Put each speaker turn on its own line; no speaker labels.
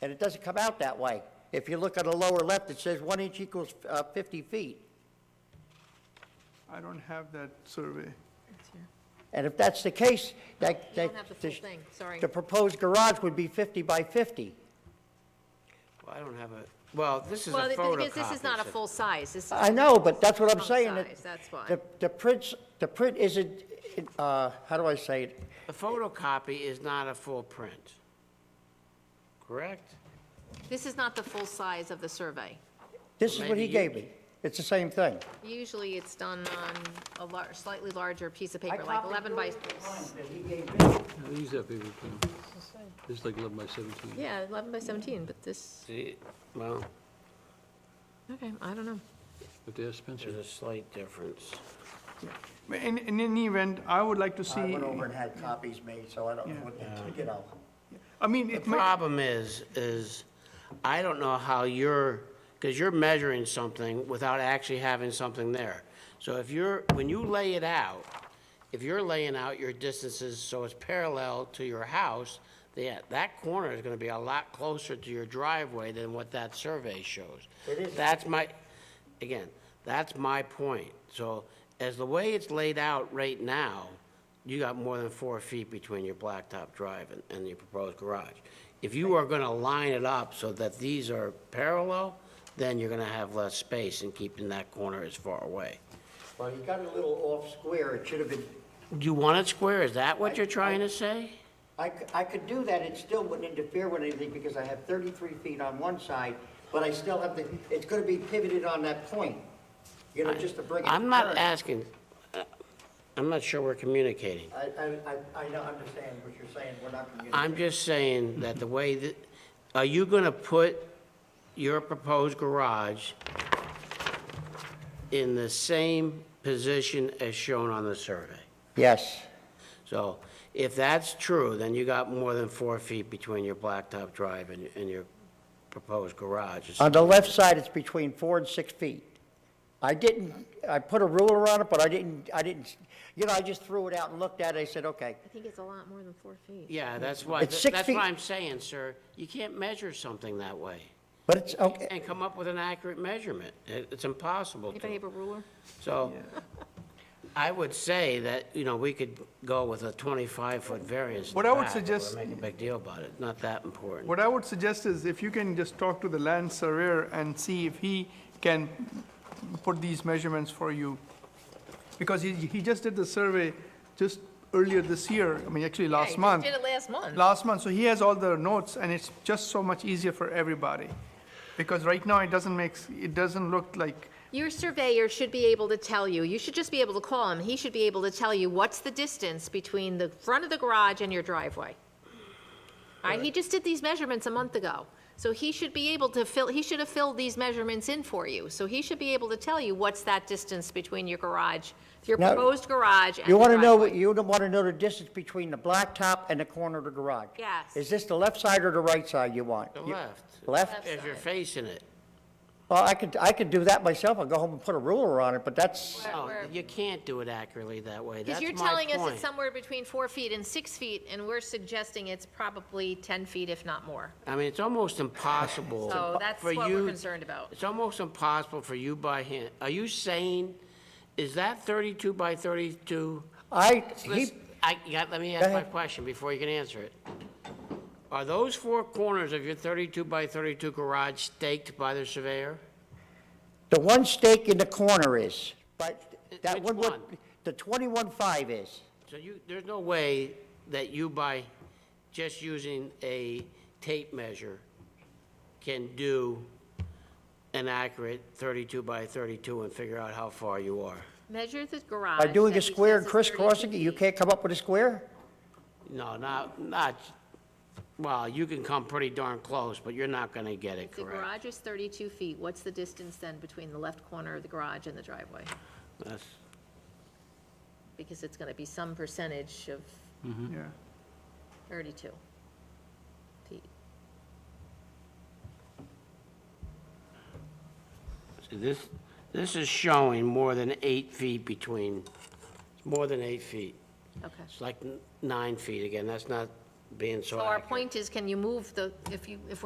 and it doesn't come out that way. If you look on the lower left, it says one inch equals uh, 50 feet.
I don't have that survey.
And if that's the case, that, that.
You don't have the full thing, sorry.
The proposed garage would be 50 by 50.
Well, I don't have a, well, this is a
Well, the thing
photocopy.
is, this is not a
so-
full size, this is.
I know, but that's what I'm
Full
saying. that
size, That's why.
The, the print, the print isn't, uh, how do I say it?
The photocopy is not a full print, correct?
This is not the full size of the survey.
This is what he
Maybe you-
gave me. It's the same thing.
Usually it's done on a lar, slightly larger piece of paper,
I
like
copied
11 by,
I'll use that paper, Ken. It's like 11 by 17.
yeah, 11 by 17, but this,
See, well,
okay, I don't know.
But there's Spencer.
there's a slight difference.
But In, in any event, I would like
I
to see,
went over and had copies made, so I don't know what, the- you know.
I mean,
The
it might,
problem is, is I don't know how you're, because you're measuring something without actually having something there. So if you're, when you lay it out, if you're laying out your distances so it's parallel to your house, yeah, that corner is gonna be a lot closer to your driveway than what that survey shows.
It is.
That's my, again, that's my point. So as the way it's laid out right now, you got more than four feet between your blacktop drive and, and your proposed garage. If you are gonna line it up so that these are parallel, then you're gonna have less space and keeping that corner as far away.
Well, you got a little off square. It should have been,
Do you want it square? Is that what you're trying to say?
I, c- I could do that. It still wouldn't interfere with anything because I have 33 feet on one side, but I still have the, it's going to be pivoted on that point. You know, just to bring it.
I'm not
current.
asking, uh, I'm not sure we're communicating.
I, I, I, I don't understand what you're saying. We're not communicating.
I'm just saying that the way that, are you gonna put your proposed garage in the same position as shown on the survey?
Yes.
So if that's true, then you got more than four feet between your blacktop drive and, and your proposed garage.
On the left side, it's between four and six feet. I didn't, I put a ruler on it, but I didn't, I didn't, you know, I just threw it out and looked at it, I said, okay.
I think it's a lot more than four feet.
Yeah, that's why,
It's six
that's
feet.
what I'm saying, sir. You can't measure something that way
But it's, okay,
and come up with an accurate measurement. It- It's impossible to.
Anybody have a ruler?
So I would say that, you know, we could go with a 25-foot variance. in
What
the
I would
back, but
suggest-
Make a big deal about it, not that important.
what I would suggest is if you can just talk to the land surveyor and see if he can put these measurements for you. Because he, he just did the survey just earlier this year, I mean, actually last month.
Did it last month.
last month, so he has all the notes, and it's just so much easier for everybody. Because right now, it doesn't make, s- it doesn't look like,
Your surveyor should be able to tell you, you should just be able to call him, he should be able to tell you what's the distance between the front of the garage and your driveway. All right, he just did these measurements a month ago, so he should be able to fill, he should have filled these measurements in for you. So he should be able to tell you what's that distance between your garage, your
Now,
proposed garage and
you
the
wanna know, what
driveway.
you wanna know the distance between the blacktop and the corner of the garage?
Yes.
Is this the left side or the right side you want?
The
You-
left,
Left?
if you're facing it.
Well, I could, I could do that myself, I'll go home and put a ruler on it, but that's,
No,
where-
Oh, you can't do it accurately that way.
Because
That's my
you're
point.
telling us it's somewhere between four feet and six feet, and we're suggesting it's probably 10 feet, if not more.
I mean, it's almost impossible
So that's
for
what we're
you-
concerned about.
It's almost impossible for you by hand. Are you saying, is that 32 by 32?
I, he,
Listen, I, yeah, let me ask my
ahead.
question before you can answer it. Are those four corners of your 32 by 32 garage staked by the surveyor?
the one stake in the corner is, but that
Which
one would,
one?
the 21.5 is.
So you, there's no way that you by just using a tape measure can do an accurate 32 by 32 and figure out how far you are?
Measure the garage.
By doing
that
a
he
square and
says is 32
crisscrossing it, you
feet.
can't come up with a square?
No, not, not, well, you can come pretty darn close, but you're not gonna get it
If the
correct.
garage is 32 feet, what's the distance then between the left corner of the garage and the driveway?
That's-
Because it's going to be some percentage of
Mm-hmm.
yeah.
32 feet.
See, This, this is showing more than eight feet between, more than eight feet.
Okay.
It's like n- nine feet again, that's not being so
So our
accurate.
point is, can you move the, if you, if